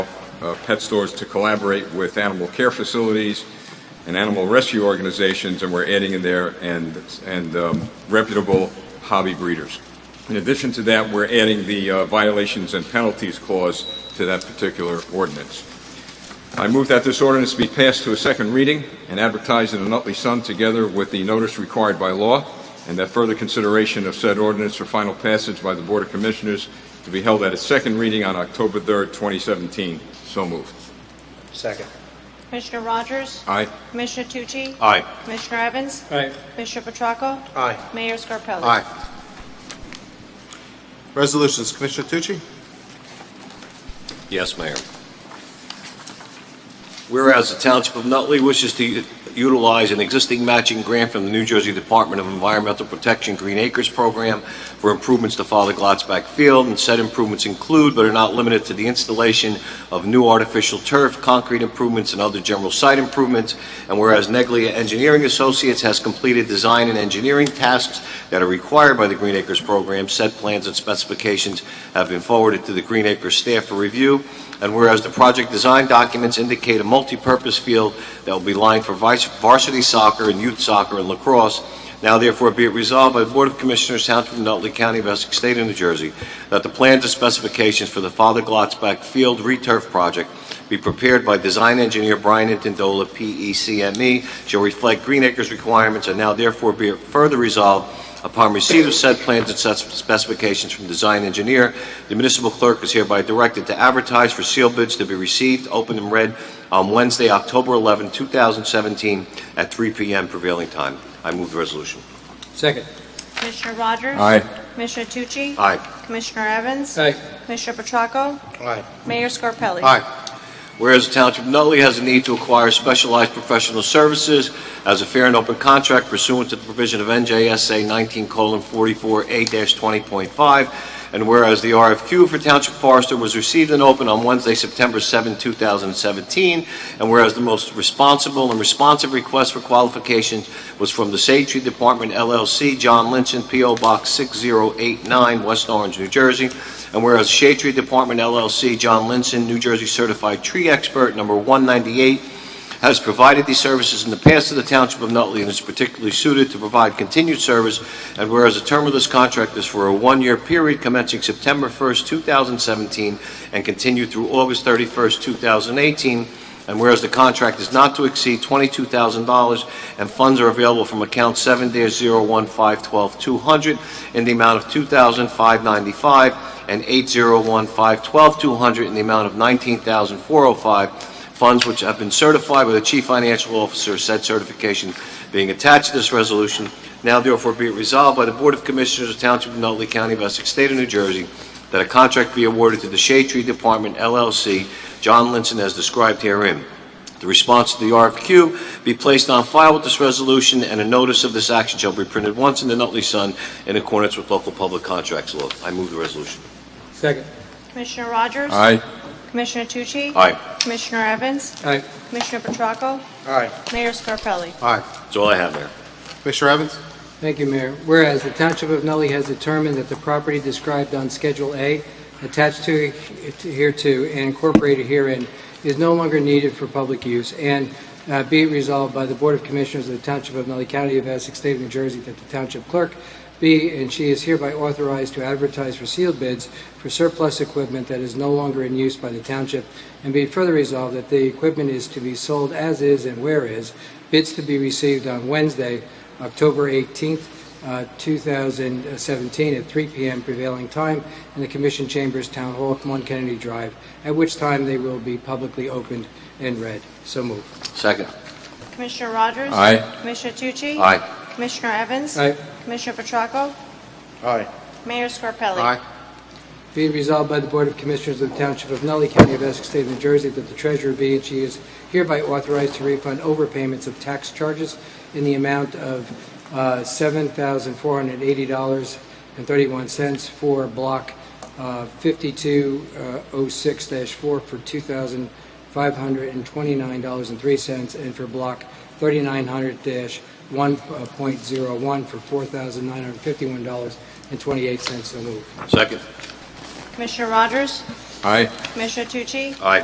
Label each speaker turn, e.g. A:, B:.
A: uh, pet stores to collaborate with animal care facilities and animal rescue organizations, and we're adding in there and, and um, reputable hobby breeders. In addition to that, we're adding the uh, violations and penalties clause to that particular ordinance. I move that this ordinance be passed to a second reading and advertised in the Nutley Sun together with the notice required by law, and that further consideration of said ordinance for final passage by the Board of Commissioners to be held at its second reading on October 3rd, 2017. So moved.
B: Second.
C: Commissioner Rogers?
A: Aye.
C: Commissioner Tucci?
B: Aye.
C: Commissioner Evans?
B: Aye.
C: Commissioner Petracco?
B: Aye.
C: Mayor Scarpelli?
D: Aye. Resolutions, Commissioner Tucci?
E: Yes, Mayor. Whereas the Township of Nutley wishes to utilize an existing matching grant from the New Jersey Department of Environmental Protection Green Acres Program for improvements to Father Glotzback Field, and said improvements include but are not limited to the installation of new artificial turf, concrete improvements, and other general site improvements. And whereas Neglia Engineering Associates has completed design and engineering tasks that are required by the Green Acres Program, said plans and specifications have been forwarded to the Green Acres staff for review, and whereas the project design documents indicate a multi-purpose field that will be lined for vice- varsity soccer and youth soccer and lacrosse, now therefore be it resolved by the Board of Commissioners, Township of Nutley County, of Essex State of New Jersey, that the plans and specifications for the Father Glotzback Field Returf Project be prepared by design engineer Brian Intindola, E PECME, shall reflect Green Acres requirements, and now therefore be it further resolved upon receipt of said plans and such specifications from design engineer, the municipal clerk is hereby directed to advertise for seal bids to be received, open and read on Wednesday, October 11, 2017, at 3 p.m. prevailing time. I move the resolution.
B: Second.
C: Commissioner Rogers?
A: Aye.
C: Commissioner Tucci?
E: Aye.
C: Commissioner Evans?
B: Aye.
C: Commissioner Petracco?
B: Aye.
C: Mayor Scarpelli?
D: Aye.
E: Whereas the Township of Nutley has a need to acquire specialized professional services as a fair and open contract pursuant to the provision of NJSA 19:44A-20.5, and whereas the RFQ for Township Forester was received and opened on Wednesday, September 7, 2017, and whereas the most responsible and responsive request for qualifications was from the Safety Department LLC, John Lynch, and P.O. Box 6089, West Orange, New Jersey, and whereas Shade Tree Department LLC, John Linson, New Jersey Certified Tree Expert, number 198, has provided these services in the past to the Township of Nutley and is particularly suited to provide continued service, and whereas the term of this contract is for a one-year period commencing September 1st, 2017, and continued through August 31st, 2018, and whereas the contract is not to exceed $22,000, and funds are available from account 7-01512200 in the amount of 2595 and 801-512-200 in the amount of 19405 funds which have been certified by the Chief Financial Officer, said certification being attached to this resolution. Now therefore be it resolved by the Board of Commissioners of Township of Nutley County of Essex, State of New Jersey, that a contract be awarded to the Shade Tree Department LLC, John Linson as described herein. The response to the RFQ be placed on file with this resolution, and a notice of this action shall be printed once in the Nutley Sun in accordance with local public contracts law. I move the resolution.
B: Second.
C: Commissioner Rogers?
A: Aye.
C: Commissioner Tucci?
E: Aye.
C: Commissioner Evans?
B: Aye.
C: Commissioner Petracco?
B: Aye.
C: Mayor Scarpelli?
D: Aye.
E: That's all I have, Mayor.
D: Commissioner Evans?
B: Thank you, Mayor. Whereas the Township of Nutley has determined that the property described on Schedule A, attached to hereto and incorporated herein, is no longer needed for public use, and uh, be it resolved by the Board of Commissioners of the Township of Nutley County of Essex, State of New Jersey, that the Township Clerk be and she is hereby authorized to advertise for sealed bids for surplus equipment that is no longer in use by the Township, and be it further resolved that the equipment is to be sold as is and where is, bids to be received on Wednesday, October 18th, uh, 2017, at 3 p.m. prevailing time in the Commission Chambers, Town Hall, 1 Kennedy Drive, at which time they will be publicly opened and read. So moved.
E: Second.
C: Commissioner Rogers?
A: Aye.
C: Commissioner Tucci?
E: Aye.
C: Commissioner Evans?
B: Aye.
C: Commissioner Petracco?
D: Aye.
C: Mayor Scarpelli?
B: Be it resolved by the Board of Commissioners of the Township of Nutley County of Essex State of New Jersey that the treasurer be and she is hereby authorized to refund overpayments of tax charges in the amount of uh, $7,480.31 for Block uh, 5206-4 for $2,529.03 and for Block 3900-1.01 for $4,951.28. So moved.
E: Second.
C: Commissioner Rogers?
A: Aye.
C: Commissioner Tucci?
E: Aye.